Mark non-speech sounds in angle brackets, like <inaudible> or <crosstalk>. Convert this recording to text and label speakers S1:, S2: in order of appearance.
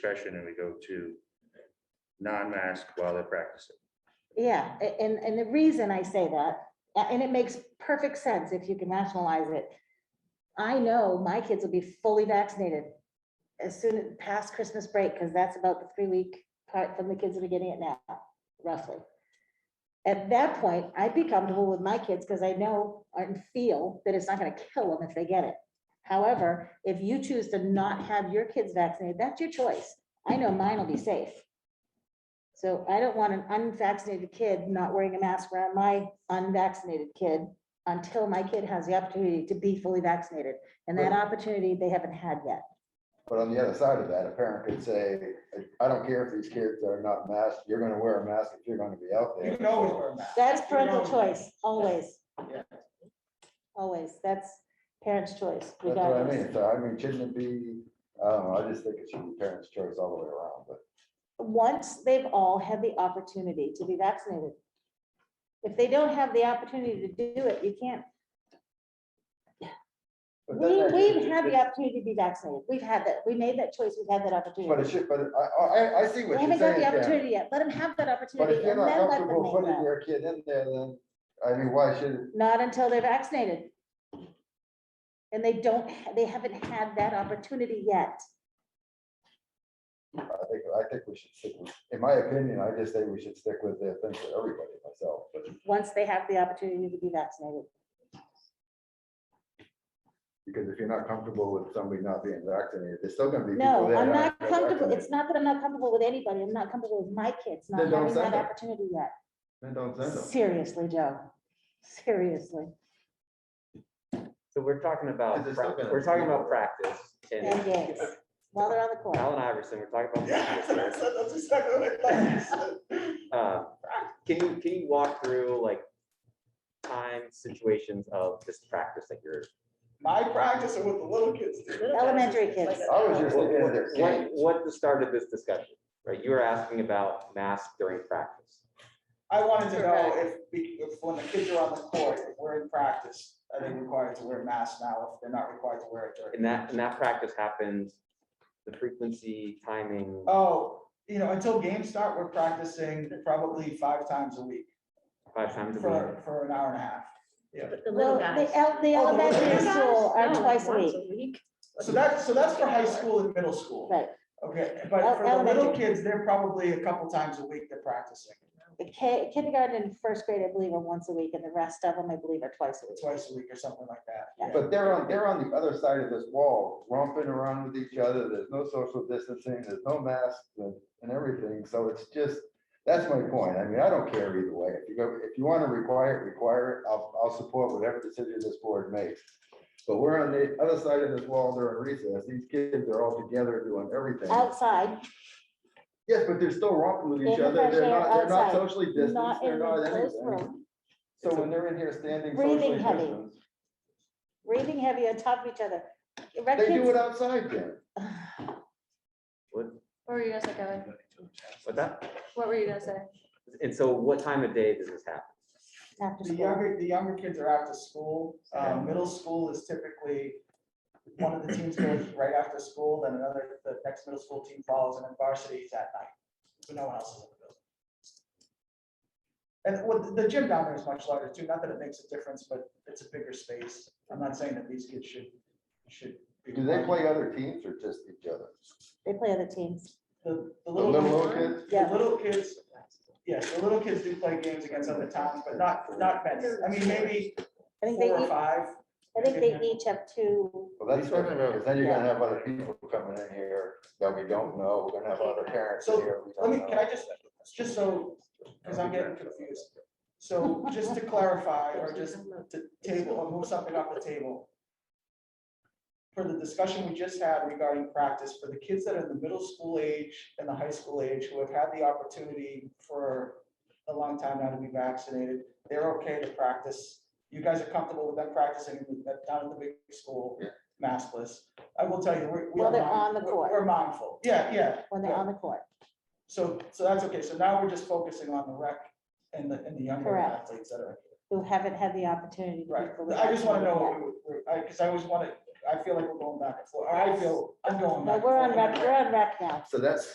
S1: discussion and we go to non-mask while they're practicing.
S2: Yeah, a- and, and the reason I say that, a- and it makes perfect sense if you can rationalize it. I know my kids will be fully vaccinated as soon as past Christmas break, because that's about the three week part from the kids that are getting it now, roughly. At that point, I'd be comfortable with my kids because I know and feel that it's not gonna kill them if they get it. However, if you choose to not have your kids vaccinated, that's your choice. I know mine will be safe. So I don't want an unvaccinated kid not wearing a mask around my unvaccinated kid until my kid has the opportunity to be fully vaccinated. And that opportunity they haven't had yet.
S3: But on the other side of that, a parent could say, I don't care if these kids are not masked, you're gonna wear a mask if you're gonna be out
S4: You
S3: there.
S4: can always wear a mask.
S2: That's parental
S4: You can always-
S2: choice, always.
S4: Yeah.
S2: Always. That's parents' choice
S3: That's what I
S2: regardless.
S3: mean. So I mean, shouldn't it be, I don't know, I just think it should be parents' choice all the way around, but.
S2: Once they've all had the opportunity to be vaccinated. If they don't have the opportunity to do it, you can't.
S3: but
S2: We,
S3: that-
S2: we've had the opportunity to be vaccinated. We've had that. We made that choice. We've had that
S3: But
S2: opportunity.
S3: it should, but I, I, I see
S2: They
S3: what you're
S2: haven't got
S3: saying,
S2: the
S3: Karen.
S2: opportunity yet. Let them have that
S3: But
S2: opportunity
S3: if you're
S2: and
S3: not
S2: then let them
S3: comfortable
S2: make
S3: putting
S2: that.
S3: your kid in there, then, I mean, why should,
S2: Not until they're vaccinated. And they don't, ha- they haven't had that opportunity yet.
S3: I think, I think we should stick with, in my opinion, I just think we should stick with the thing for everybody myself, but
S2: once they have the opportunity to be vaccinated.
S3: because if you're not comfortable with somebody not being vaccinated, there's still gonna be people
S2: No,
S3: there.
S2: I'm not
S3: gonna
S2: comfortable.
S3: vaccinate.
S2: It's not that I'm not comfortable with anybody. I'm not comfortable with my kids not
S3: Then don't
S2: having that
S3: send them.
S2: opportunity yet.
S3: Then don't send them.
S2: Seriously, Joe. Seriously.
S5: So we're talking about,
S3: 'Cause it's
S5: prac-
S3: still gonna
S5: we're talking
S3: be-
S5: about practice
S2: And
S5: and
S2: yes, while they're on the court.
S5: Alan Iverson, we're talking about.
S4: Yeah,
S5: practice.
S4: that's, that's exactly what I thought.
S5: Uh, Can you, can you walk through like time situations of this practice that you're,
S4: My practice and what the little kids do.
S2: Elementary kids.
S3: I was just looking at their
S5: what,
S3: game.
S5: what the start of this discussion, right? You were asking about mask during practice.
S4: I wanted to know if, we- if when the kids are on the court, if we're in practice, are they required to wear masks now if they're not required to wear it during?
S5: And that, and that practice happens, the frequency, timing.
S4: Oh, you know, until games start, we're practicing probably five times a week
S5: Five times a week.
S4: for, for an hour and a half.
S6: But the
S2: Well,
S6: little guys.
S2: the el- the
S4: Oh, the little
S2: elementary
S4: guys? Oh,
S2: school are
S6: No,
S2: twice a
S6: Oh, once
S2: week,
S4: So that's, so that's for high school and middle school.
S2: right?
S4: Okay, but
S2: El-
S4: for the little
S2: elementary.
S4: kids, they're probably a couple times a week they're practicing,
S2: The ki- kindergarten and first grade, I believe, are once a week, and the rest of them, I believe, are twice a week.
S4: twice a week or something like that.
S2: Yeah.
S3: But they're on, they're on the other side of this wall, romping around with each other. There's no social distancing, there's no masks and, and everything. So it's just, that's my point. I mean, I don't care either way. If you go, if you want to require it, require it. I'll, I'll support whatever decision this board makes. But we're on the other side of this wall during recess. These kids are all together doing everything.
S2: Outside,
S3: Yes, but they're still romping with
S2: In
S3: each
S2: the
S3: other.
S2: fresh
S3: They're
S2: air
S3: not, they're not
S2: outside,
S3: socially distanced.
S2: not
S3: They're
S2: in the
S3: not
S2: closed
S3: anything.
S2: room,
S3: So when they're in here standing
S2: Breathing
S3: socially
S2: heavy.
S3: distanced,
S2: breathing heavy on top of each other. Rec
S3: they do
S2: kids-
S3: it outside then.
S5: What,
S6: What were you gonna say, Kevin?
S5: what that?
S6: What were you gonna say?
S5: And so what time of day does this happen?
S2: after
S4: The
S2: school.
S4: younger, the younger kids are out to school. Um, middle school is typically, one of the teams goes right after school, then another, the next middle school team follows, and then varsity is at night. So no one else is in the building. And with, the gym down there is much larger too, not that it makes a difference, but it's a bigger space. I'm not saying that these kids should, should. be-
S3: Do they play other teams or just each other?
S2: They play other teams.
S4: The, the
S3: The little
S4: little,
S3: kids?
S4: the
S2: Yeah,
S4: little kids, yes, the little kids do play games against other towns, but not, not many. I mean, maybe
S2: I think they,
S4: four or
S2: each-
S4: five.
S2: I think they each have two
S3: Well, that's
S1: You're
S3: good,
S1: talking
S3: because
S1: about-
S3: then you're gonna have other people coming in here that we don't know, we're gonna have other parents in
S4: So,
S3: here. we
S4: Let me,
S3: don't
S4: can
S3: know.
S4: I just, just so, because I'm getting
S2: <laughs>
S4: confused. So just to clarify, or just to table, or move something off the table. For the discussion we just had regarding practice, for the kids that are the middle school age and the high school age who have had the opportunity for a long time now to be vaccinated, they're okay to practice. You guys are comfortable with them practicing in the- down at the big school,
S3: Yeah.
S4: maskless. I will tell you, we're. we
S2: While
S4: are
S2: they're
S4: mind-
S2: on the
S4: we're-
S2: court.
S4: We're mindful. Yeah, yeah.
S2: when they're
S4: yeah.
S2: on the court.
S4: So, so that's okay. So now we're just focusing on the rec and the, and the younger
S2: Correct.
S4: athletes that are,
S2: who haven't had the opportunity. to be
S4: right.
S2: fully
S4: I just want to know,
S2: vaccinated
S4: what we- we- I, because I always want to I feel like we're going back and forth, or I feel, I'm going
S2: But
S4: back. and
S2: we're on
S4: forth.
S2: rec, we're on rec now.
S3: So that's